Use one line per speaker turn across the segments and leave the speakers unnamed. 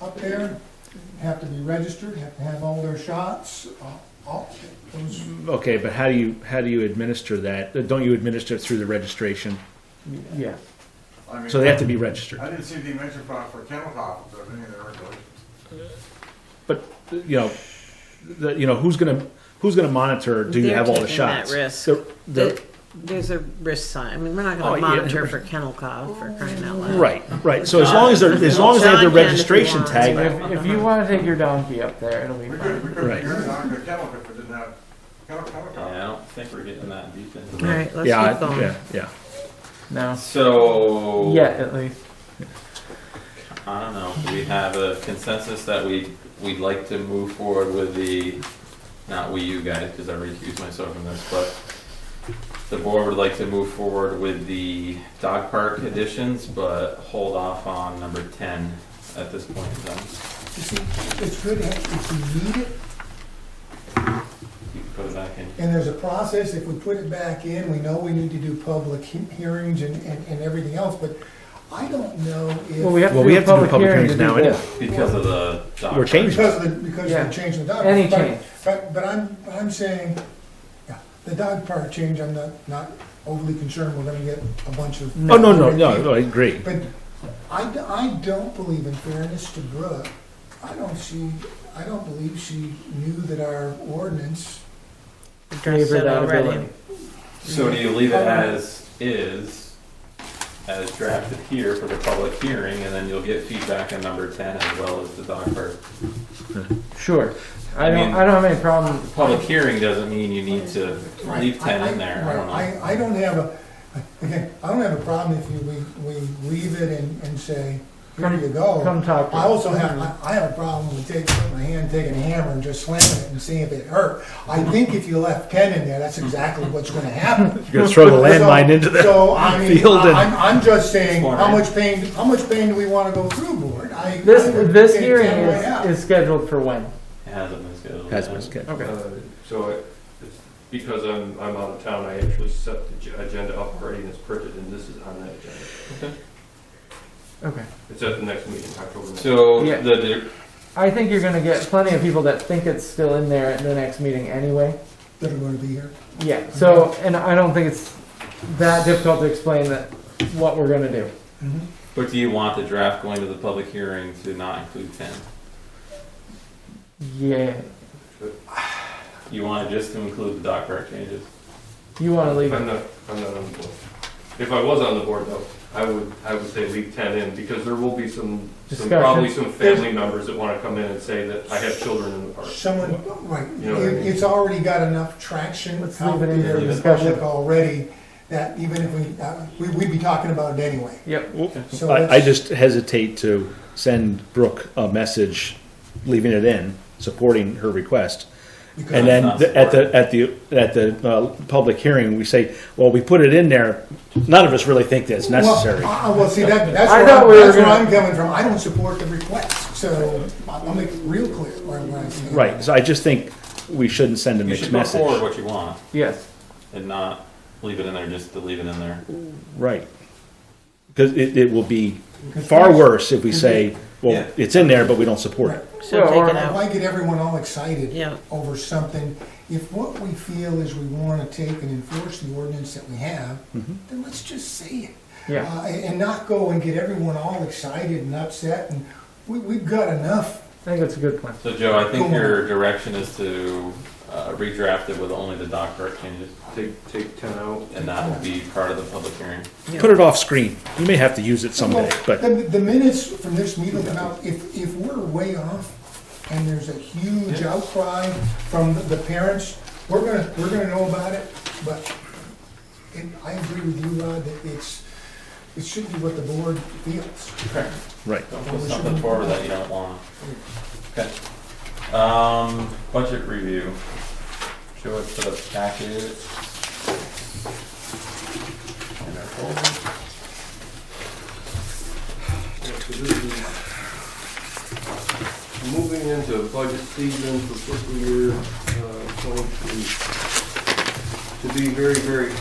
up there, have to be registered, have to have all their shots, all- all, those,
Okay, but how do you, how do you administer that? Uh, Don't you administer it through the registration?
Yeah.
I mean,
So they have to be registered.
I didn't see the mention for, for kennel coffins of any of their regulations.
But, you know, the, you know, who's gonna, who's gonna monitor, do you
They're
have all the
taking that
shots?
risk.
The- the-
The- There's a risk sign. I mean, we're not
Oh,
gonna
yeah.
monitor for kennel cough for crying out loud.
Right, right, so as long as they're, as long as they have their
John can if he
registration
wants,
tag,
If, if you want to take your donkey up there, it'll be
We
fine.
could, we could,
Right.
you're not gonna kennel if we didn't have kennel, kennel
Yeah, I
coffins.
don't think we're getting that deep into
All
it.
right, let's
yeah,
keep
I-
going.
yeah, yeah.
No.
So,
Yet, at least.
I don't know. Do we have a consensus that we, we'd like to move forward with the, not we, you guys, because I recuse myself from this, but the board would like to move forward with the dog park additions, but hold off on number 10 at this point in time.
you see, it's good if you need it,
You can put it back in.
And there's a process, if we put it back in, we know we need to do public he- hearings and, and, and everything else, but I don't know
Well, we
if,
have to
Well,
do
we
a
have to do
public
public
hearing
hearings
to do
now
this.
Because of the dog
We're
park.
changing.
because of the, because of
Yeah.
the change in the dog.
Any
But-
change.
But, but I'm, I'm saying, yeah, the dog park change, I'm not, not overly concerned, we're gonna get a bunch of.
Oh, no, no, no, no, I agree.
But I, d- I don't believe in fairness to Brooke. I don't see, I don't believe she knew that our ordinance,
Addressed it already.
So do
Mhm.
you leave it as is, as drafted here for the public hearing, and then you'll get feedback on number ten as well as the dog park?
Sure. I,
I
don't.
mean-
I don't have any problem. with the
Public hearing doesn't mean you need to
Right,
leave ten
I- I-
in there, I
right,
don't know.
I, I don't have a, again, I don't have a problem if you, we, we leave it and, and say, here you go.
Come talk to
I
us.
also have, I, I have a problem with taking, putting my hand, taking a hammer and just slamming it and seeing if it hurt. I think if you left Ken in there, that's exactly what's gonna happen.
You're gonna throw the landmine
So-
into the
So, I mean,
field and-
I- I'm, I'm just saying, how
Smart.
much pain, how much pain do we wanna go through, board? I-
This
I would
this
take
hearing
Ken right out.
is, is scheduled for when?
It hasn't been scheduled.
Has
yet.
been scheduled.
Okay.
Uh, So it- it's, because I'm, I'm out of town, I actually set the ag- agenda up already and it's printed and this is on that agenda.
Okay.
It's at the next meeting, October ninth.
So
Yeah.
the, the-
I think you're going to get plenty of people that think it's still in there at the next meeting anyway.
That are gonna be here.
Yeah. So, and I don't think it's that difficult to explain that what we're going to do.
but do you want the draft going to the public hearing to not include ten?
Yeah.
You want it just to include the dog park changes?
You want to leave
I'm
it?
not, I'm not on the board. If I was on the board though, I would, I would say leave ten in because there will be some, some,
Discussion.
probably some family members that wanna come in and say that I have children in the park.
Someone, right,
You know what I
It-
mean?
it's already got enough traction
Let's
out
leave it in
there
for
in the
discussion.
public already, that even if we, uh, we, we'd be talking about it anyway.
Yep.
So
I, I
let's-
just hesitate to send Brooke a message, leaving it in, supporting her request.
because-
And then
Not
the- at
supported.
the, at the, at the, uh, public hearing, we say, well, we put it in there, none of us really think that's necessary.
Well, uh, uh, well, see, that, that's
I
where,
thought
I'm-
we were
that's where
gonna-
I'm coming from, I don't support the request, so I'll I'll make it real clear where I'm at.
Right, so I just think we shouldn't send a
You
mixed
should put forward
message.
what you want
Yes.
and not leave it in there just to leave it in there.
Right. Because it, it will be far worse if we say, well,
Yeah.
it's in there, but we don't support it.
So
Well, or-
take it
Why
out.
get everyone all excited?
Yeah.
Over something, if what we feel is we wanna take and enforce the ordinance that we have, then let's just say it.
Yeah.
Uh, and and not go and get everyone all excited and upset, and we, we've got enough.
I think that's a good plan.
So Joe, I think
Cool.
your direction is to uh, redraft it with only the dock park changes,
Take, take ten out.
and that will be part of the public hearing.
Yeah.
Put it off screen. You may have to use it someday,
Well,
but,
The, the minutes from this meeting come out, if, if we're way off, and there's a huge outcry from the parents, we're gonna, we're gonna know about it, but, and I agree with you, Rod, that it's, it should be what the board feels.
right.
Don't put something forward that you don't want. Okay. Um, budget review. Show it to the packet. In our folder.
Moving into budget season for fiscal year, uh, twenty-three. To be very, very,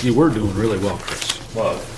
uh,
You were doing really well, Chris.
Well,